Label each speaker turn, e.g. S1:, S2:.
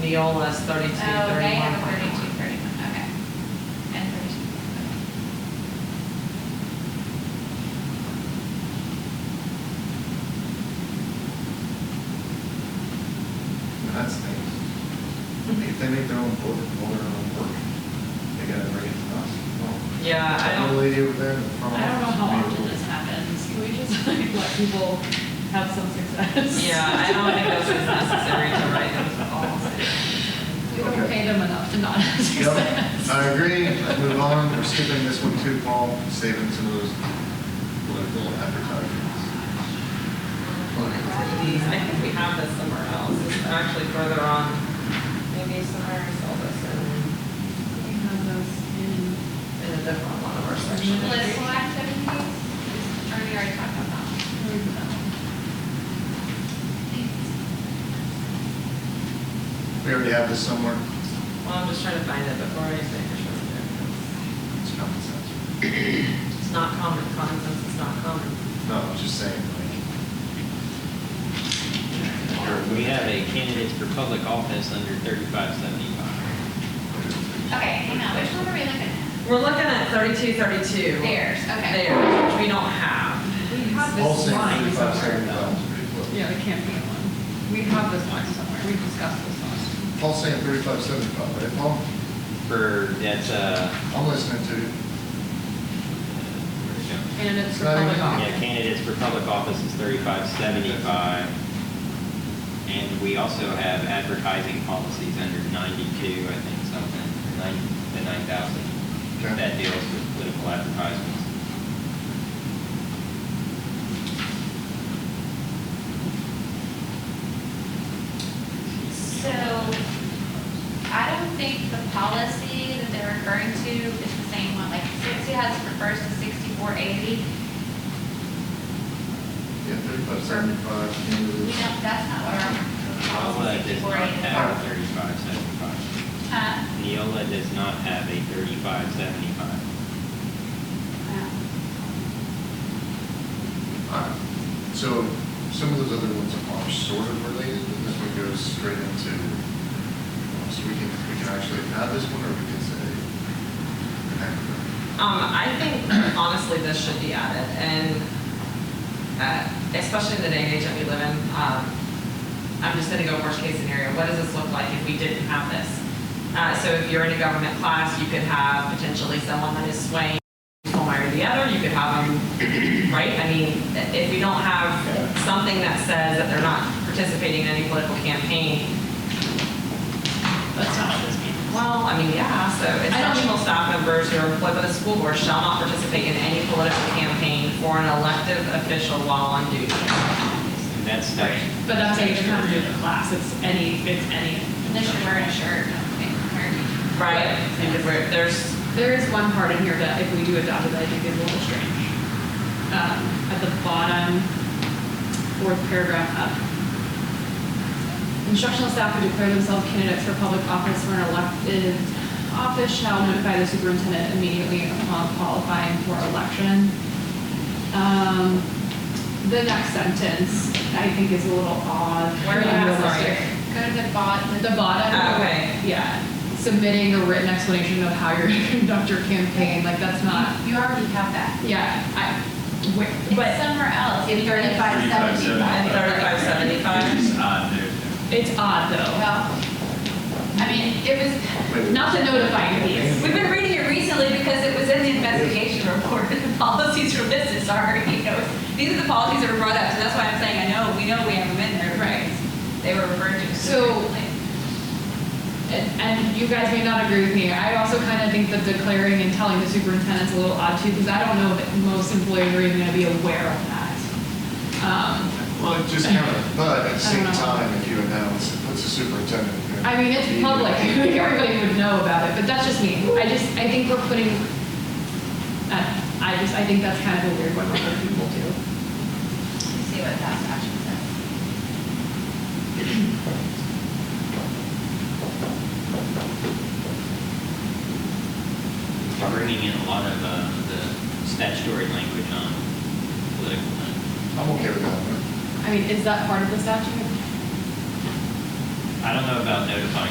S1: Neola's thirty-two,
S2: Oh, they have
S1: thirty-one.
S2: a thirty-two, thirty-one, okay. And thirty-two. okay.
S3: And that's nice. If they make their own board, board their own work, they gotta bring it to us. Well,
S1: Yeah, I
S3: that
S1: don't.
S3: little lady over there in the front.
S2: I don't know how
S3: office,
S2: often
S3: maybe
S2: this happens. Can we just like let people have some success?
S1: Yeah, I don't think those was necessary to write into the policy.
S2: We don't
S3: Okay.
S2: pay them enough to not have
S3: we'll- Yep,
S2: success.
S3: I agree, let's move on, we're skipping this one too, Paul, saving some of those political advertisements.
S1: These, I think we have this somewhere else, it's actually further on, maybe somewhere I saw this in,
S4: We have those
S1: in a different one of our sections.
S2: Political activities, Already already talked about that.
S3: We already have this somewhere,
S1: Well, I'm just trying to find it before I say for sure. that
S3: it's common sense.
S1: It's it's not common, common sense is not common.
S3: No, I'm just saying, like,
S5: We have a candidates for public office under thirty-five seventy-five.
S2: Okay, hang on, which one are we looking at?
S1: We're looking at thirty-two, thirty-two.
S2: Theirs, okay.
S1: There, which we don't have.
S4: in. We have
S3: all
S4: this
S3: saying
S4: line
S3: thirty-five seventy
S4: somewhere.
S3: five is pretty close.
S4: Yeah, it can't be one. We have this line somewhere. We discussed this last.
S3: Paul's saying thirty-five seventy-five, right, Paul?
S5: For, that's, uh,
S3: I'm listening to you.
S5: where'd it go?
S4: And it's for
S3: Not
S4: public
S3: even-
S5: Yeah,
S4: office.
S5: candidates for public office is thirty-five seventy-five. And we also have advertising policies under ninety-two, I think, something, nine, the nine thousand.
S3: Okay.
S5: That deals with political advertisements.
S2: So I don't think the policy that they're referring to is the same one, like sixty has refers to sixty-four eighty.
S3: Yeah, thirty-five seventy-five, you know,
S2: You
S3: it's-
S2: know, that's not what our
S5: Neola
S2: policy
S5: does
S2: sixty-four
S5: not
S2: eighty.
S5: have a thirty-five seventy-five.
S2: Huh?
S5: Neola does not have a thirty-five seventy-five.
S3: Alright, Um, So some of those other ones are sort of related, but this one goes straight into, uh, so we can, we can actually add this one, or we can say.
S1: Um, I think honestly, this should be added, and, uh, especially in the day and age that we live in, um, I'm just gonna go worst case scenario, what does this look like if we didn't have this? Uh, so if you're in a government class, you could have potentially someone that is swaying one way or the other, you could have them, right? I mean, if we don't have something that says that they're not participating in any political campaign,
S5: That's not what this means.
S1: well, I mean, yeah, so instructional staff members who are employed by the school board shall not participate in any political campaign for an elective official while on duty.
S5: And that's statu-
S4: But that's a different kind of class. It's any, it's any.
S2: They should wear a shirt, okay, or-
S1: Right. Because we're- there's,
S4: There is one part in here that if we do adopt it, I think is a little strange. Um, At the bottom, fourth paragraph up. Instructional staff who declare themselves candidates for public office or an elected office shall notify the superintendent immediately upon qualifying for election. Um, The next sentence, I think, is a little odd.
S1: Where are you at? Sorry.
S4: Unrealistic.
S2: go to the bot,
S4: At
S2: the
S4: the bottom.
S1: Okay.
S4: Yeah, submitting a written explanation of how you're gonna conduct your campaign, like that's not,
S2: You already have that.
S4: yeah, I, wait,
S2: It's
S4: but
S2: somewhere else.
S4: In 35,
S1: and thirty-five seventy-five.
S5: uh,
S4: it's odd though.
S2: Well, I mean, it was,
S4: Not the notifying piece.
S2: we've been reading it recently because it was in the investigation report. The policies for business are, you know, these are the policies that were brought up, so that's why I'm saying, I know, we know we have them in there.
S4: Right.
S2: They were referred to.
S4: So- And, and you guys may not agree with me, I also kind of think that declaring and telling the superintendent's a little odd too, because I don't know that most employees are even gonna be aware of that. Um,
S3: Well, it just kind of, but at the same
S4: I don't know.
S3: time, if you announce, it puts the superintendent. you know,
S4: I mean, it's
S3: he-
S4: public, I think everybody would know about it, but that's just me, I just, I think we're putting, I, I just, I think that's kind of a weird one for other people too.
S2: Let's see what that actually says.
S5: We're bringing in a lot of uh, the statutory language on political. language.
S3: I'm okay with that.
S4: I mean, is that part of the statute?
S5: I don't know about notify